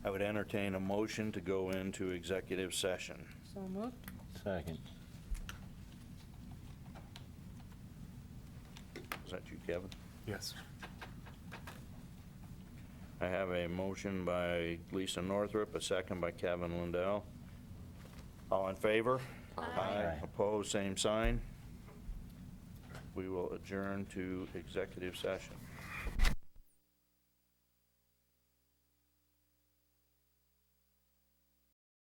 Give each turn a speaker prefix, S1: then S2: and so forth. S1: would entertain a motion to go into executive session.
S2: So moved.
S3: Second.
S1: Is that you, Kevin?
S4: Yes.
S1: I have a motion by Lisa Northrup, a second by Kevin Lindell. All in favor?
S3: Aye.
S1: Opposed, same sign. We will adjourn to executive session.